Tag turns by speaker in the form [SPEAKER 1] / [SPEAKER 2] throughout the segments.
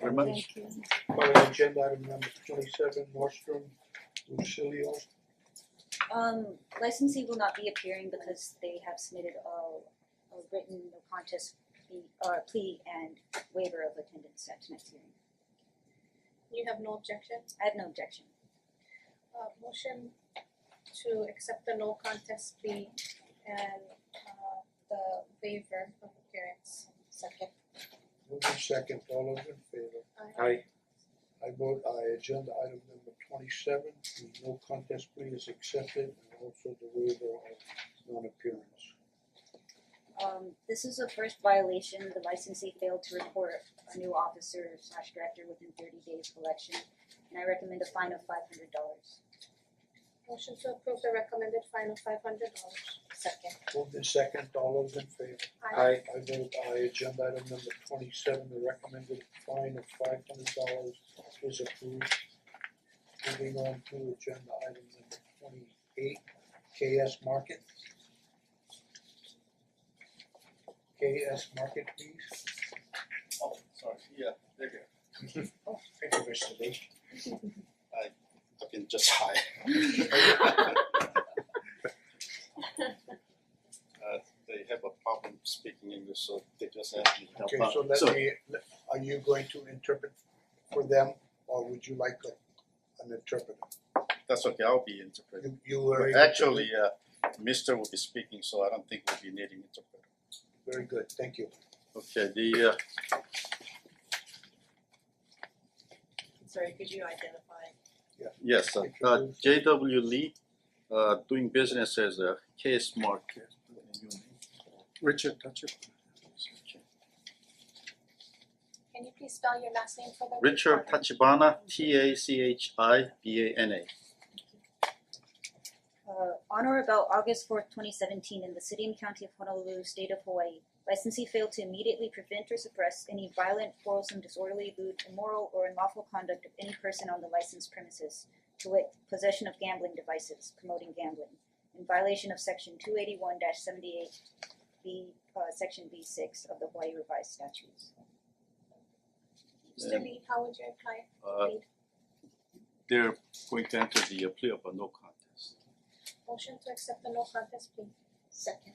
[SPEAKER 1] very much.
[SPEAKER 2] Thank you.
[SPEAKER 3] calling agenda item number twenty-seven, Nordstrom, Lucilio.
[SPEAKER 2] Um licensee will not be appearing because they have submitted a a written no contest plea or plea and waiver of attendance at tonight's hearing.
[SPEAKER 4] You have no objection?
[SPEAKER 2] I have no objection.
[SPEAKER 4] Uh motion to accept the no contest plea and uh the waiver of appearance. Second.
[SPEAKER 3] Moved in second, all those in favor?
[SPEAKER 4] Aye.
[SPEAKER 5] Aye.
[SPEAKER 3] I vote aye, agenda item number twenty-seven, the no contest plea is accepted and also the waiver of non-appearance.
[SPEAKER 2] Um this is a first violation, the licensee failed to report a new officer slash director within thirty days of election. And I recommend a fine of five hundred dollars.
[SPEAKER 4] Motion to approve the recommended fine of five hundred dollars. Second.
[SPEAKER 3] Moved in second, all those in favor?
[SPEAKER 4] Aye.
[SPEAKER 5] Aye.
[SPEAKER 3] I vote aye, agenda item number twenty-seven, the recommended fine of five hundred dollars is approved. Moving on to agenda item number twenty-eight, KS Market. KS Market, please.
[SPEAKER 1] Oh, sorry, yeah, there you Oh,
[SPEAKER 6] Thank you, Mr. Lee.
[SPEAKER 1] go. I've been just high. Uh, they have a problem speaking English, so they just asked me to help
[SPEAKER 3] Okay,
[SPEAKER 1] out.
[SPEAKER 3] so let me, let- are you going to interpret for them or would you like a- an interpreter?
[SPEAKER 1] That's okay, I'll be interpreting.
[SPEAKER 3] You you were able to-
[SPEAKER 1] Actually, uh, Mister will be speaking, so I don't think we'll be needing interpreter.
[SPEAKER 3] Very good, thank you.
[SPEAKER 1] Okay, the uh,
[SPEAKER 7] Sorry, could you identify?
[SPEAKER 1] yes, uh, uh, J W Lee, uh, doing business as a case market. Richard, that's it.
[SPEAKER 4] Can you please spell your last name for the
[SPEAKER 1] Richard
[SPEAKER 4] record?
[SPEAKER 1] Tachibana, T A C H I B A N A.
[SPEAKER 2] Uh, on or about August fourth, twenty seventeen, in the city and county of Honolulu, state of Hawaii, licensee failed to immediately prevent or suppress any violent, quarrelsome, disorderly, lewd, immoral, or unlawful conduct of any person on the licensed premises, to wit, possession of gambling devices, promoting gambling, in violation of section two eighty one seventy-eight B, uh, section B six of the Hawaii revised statutes.
[SPEAKER 4] Mr. Lee, how would you apply?
[SPEAKER 1] Uh, they're going to enter the plea of a no contest.
[SPEAKER 4] Motion to accept the no contest plea. Second.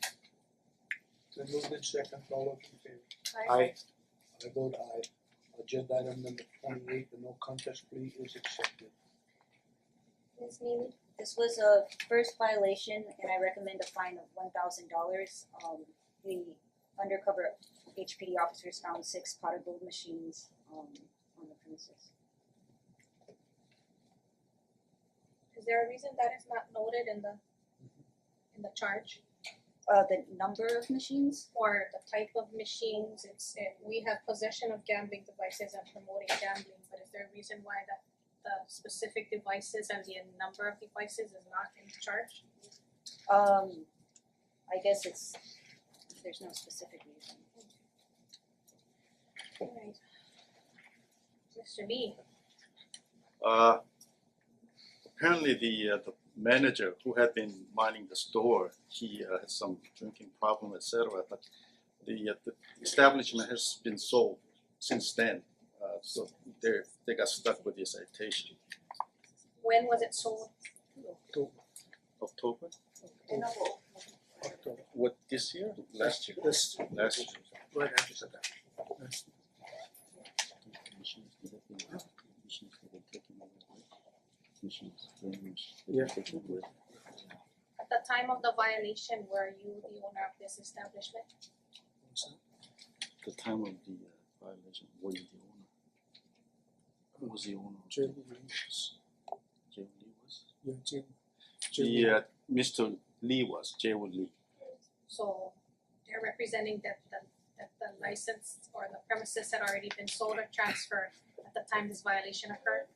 [SPEAKER 3] The movement second, all those in favor?
[SPEAKER 4] Aye.
[SPEAKER 5] Aye.
[SPEAKER 3] I vote aye. uh, Agenda item number twenty-eight, the no contest plea is accepted.
[SPEAKER 4] Ms. Neely,
[SPEAKER 2] This was a first violation and I recommend a fine of one thousand dollars. Um the undercover HPD officers found six potted gold machines um on the premises.
[SPEAKER 4] is there a reason that is not noted in the in the charge
[SPEAKER 2] Uh the number of machines,
[SPEAKER 4] or the type of machines? It's it, we have possession of gambling devices and promoting gambling, but is there a reason why that the specific devices and the number of devices is not in the charge?
[SPEAKER 2] um I guess it's there's no specific reason.
[SPEAKER 4] Alright. Mister Lee,
[SPEAKER 1] Uh, apparently the uh, the manager who had been minding the store, he uh, had some drinking problem, etc. But the, uh, the establishment has been sold since then, uh, so they they got stuck with the citation.
[SPEAKER 4] when was it sold?
[SPEAKER 1] October? What this year? Last year.
[SPEAKER 5] This,
[SPEAKER 1] Last year.
[SPEAKER 5] right after that. Yeah.
[SPEAKER 4] At the time of the violation, were you the owner of this establishment?
[SPEAKER 1] The time of the uh, violation, were you the owner? Who was the owner?
[SPEAKER 5] Jim,
[SPEAKER 1] Jay Lee was?
[SPEAKER 5] yeah, Jim.
[SPEAKER 1] The uh, Mister Lee was, Jay Wood Lee.
[SPEAKER 4] So they're representing that the that the license or the premises had already been sold or transferred at the time this violation occurred.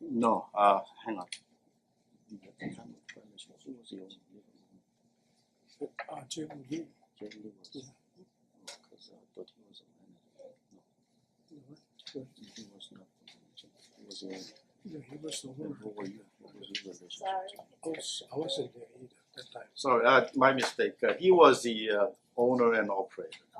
[SPEAKER 1] No, uh, hang on. The time of violation, who was the owner?
[SPEAKER 5] Uh, Jim Lee.
[SPEAKER 1] Jay Lee was.
[SPEAKER 5] Yeah.
[SPEAKER 1] Oh, cause I thought he was a manager. No, he was not the manager, he was the owner.
[SPEAKER 5] Yeah, he was the
[SPEAKER 1] Then
[SPEAKER 5] owner.
[SPEAKER 1] who were you? What was your relationship?
[SPEAKER 2] Sorry.
[SPEAKER 5] I was, I wasn't there either at that time.
[SPEAKER 1] Sorry, uh, my mistake. Uh, he was the uh, owner and operator.